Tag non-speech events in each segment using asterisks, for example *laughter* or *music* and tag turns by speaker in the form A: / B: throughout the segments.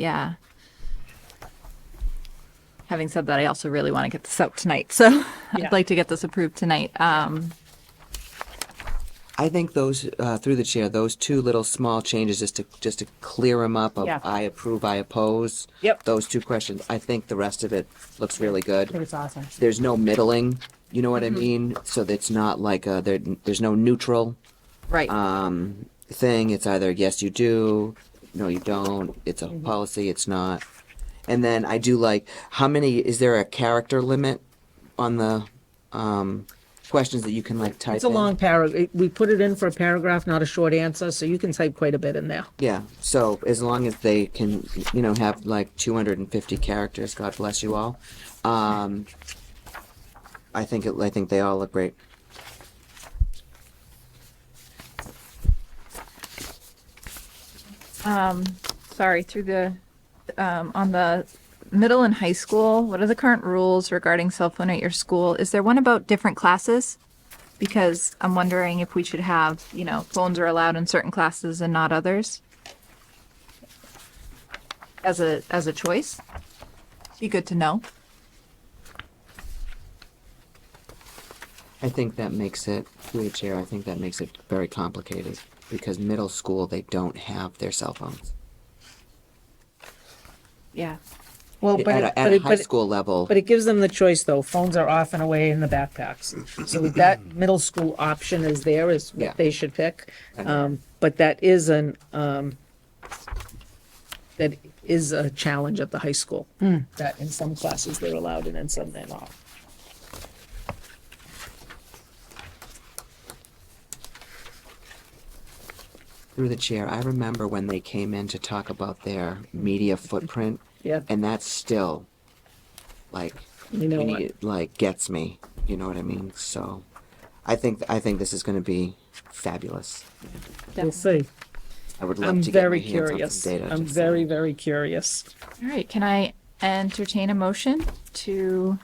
A: Yeah. Having said that, I also really want to get this out tonight, so *laughs*
B: Yeah.
A: I'd like to get this approved tonight. Um,
C: I think those, uh, through the chair, those two little small changes, just to, just to clear them up, of
B: Yeah.
C: I approve, I oppose.
B: Yep.
C: Those two questions, I think the rest of it looks really
B: I think
C: good.
B: it's awesome.
C: There's no middling, you know what I
B: Mm-hmm.
C: mean? So that it's not like, uh, there, there's no neutral
A: right.
C: um, thing. It's either yes, you do, no, you don't. It's a
B: Mm-hmm.
C: policy. It's not. And then I do like how many is there a character limit on the um, questions that you can like type?
B: It's a
C: in?
B: long paragraph. We put it in for a paragraph, not a short answer, so you can type quite a bit in there.
C: Yeah. So as long as they can, you know, have like 250 characters, God bless you all. Um, I think it, I think they all look great.
A: Um, sorry, through the, um, on the middle and high school, what are the current rules regarding cell phone at your school? Is there one about different classes? Because I'm wondering if we should have, you know, phones are allowed in certain classes and not others? As a, as a choice? Be good to know.
C: I think that makes it through the chair. I think that makes it very complicated because middle school they don't have their cell phones.
A: Yeah.
B: Well,
C: at,
B: but, it-
C: a,
B: but
C: at a
B: it-
C: high
B: but, it-
C: school level.
B: but it gives them the choice, though. Phones are off and away in the backpacks.
C: *laughs*
B: So that middle school option is there, is
C: Yeah.
B: what they should pick.
C: Okay.
B: Um, but that is an, um, that is a challenge at the high school. That in some classes they're allowed and in some they're not.
C: through the chair, I remember when they came in to talk about their media footprint,
B: Yeah,
C: and that's still like
B: you know
C: we
B: what?
C: need- like gets me. You know what I mean? So, I think I think this is going to be fabulous.
B: We'll see.
C: I would love
B: I'm
C: to get
B: very
C: my hands on some
B: curious.
C: data.
B: I'm
C: just
B: very,
C: saying.
B: very curious.
A: All right, can I entertain a motion to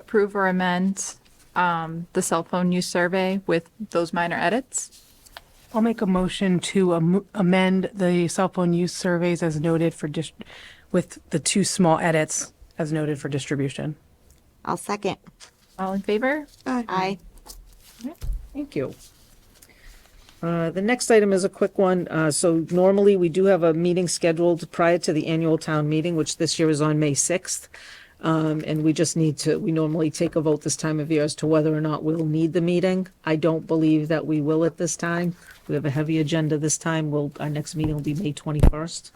A: approve or amend um, the cell phone use survey with those minor edits?
D: I'll make a motion to am- amend the cell phone use surveys as noted for dis- with the two small edits as noted for distribution.
E: I'll second.
A: All in favor?
E: Aye.
B: Thank you. Uh, The next item is a quick one. Uh, So normally, we do have a meeting scheduled prior to the annual town meeting, which this year is on May 6th. Um, And we just need to, we normally take a vote this time of year as to whether or not we'll need the meeting. I don't believe that we will at this time. We have a heavy agenda this time. We'll, our next meeting will be May 21st.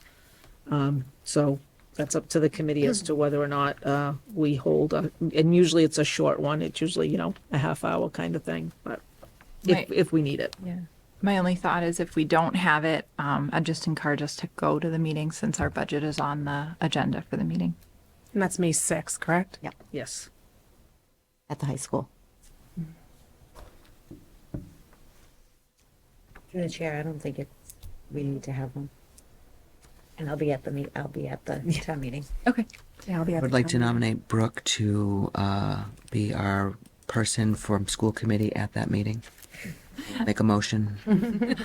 B: Um, So that's up to the committee as to whether or not uh, we hold, a- and usually it's a short one. It's usually, you know, a half hour kind of thing, but
A: Right.
B: if, if we need it.
A: Yeah. My only thought is if we don't have it, um, I'd just encourage us to go to the meeting since our budget is on the agenda for the meeting.
D: And that's May 6th, correct?
E: Yep,
B: Yes.
E: at the high school.
F: Through the chair, I don't think it, we need to have one. And I'll be at the meet, I'll be at the town meeting.
A: Okay.
D: Yeah, I'll be
C: I
D: at
C: would
D: the
C: like
D: town
C: to
D: meeting.
C: nominate Brooke to uh, be our person from school committee at that meeting. Make
B: *laughs*
C: a motion.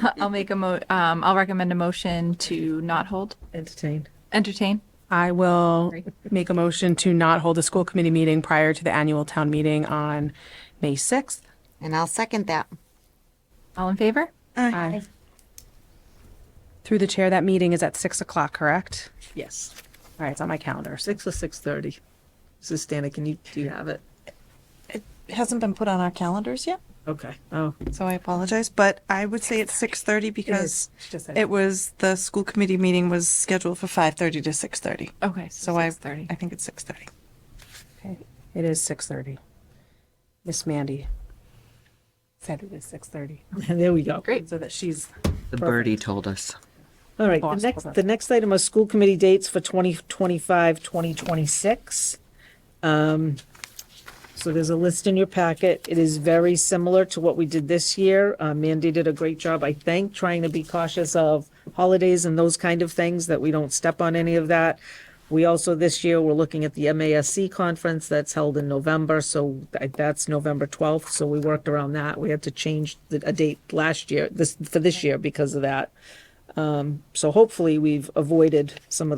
A: *laughs* I'll make a mo, um, I'll recommend a motion to not hold,
B: Entertained.
A: entertain.
D: I will
A: Sorry.
D: make a motion to not hold a school committee meeting prior to the annual town meeting on May 6th.
E: And I'll second that.
A: All in favor?
D: Aye. Through the chair, that meeting is at 6 o'clock, correct?
B: Yes.
D: All right, it's on my calendar. So
B: Six or six thirty. This is Dana, can you, do you have it?
G: hasn't been put on our calendars yet,
B: Okay. Oh, *laughs*
G: so I apologize. But I would say it's six thirty because
D: she just said
G: it was the school committee meeting was scheduled for five thirty to six thirty.
A: Okay, so
G: So I,
A: six thirty.
G: I think it's six thirty.
D: It is 6:30. Miss Mandy said it is 6:30.
B: there we go.
A: Great.
D: So that she's
C: The birdie told us.
B: All right, the
D: Boss,
B: next,
D: hold
B: the next item are school committee dates for 2025, 2026. Um, So there's a list in your packet. It is very similar to what we did this year. Uh, Mandy did a great job, I think, trying to be cautious of holidays and those kind of things, that we don't step on any of that. We also, this year, we're looking at the MASC conference that's held in November, so I- that's November 12th, so we worked around that. We had to change the, a date last Um, year, this, for this year because of that. So hopefully we've avoided some of the.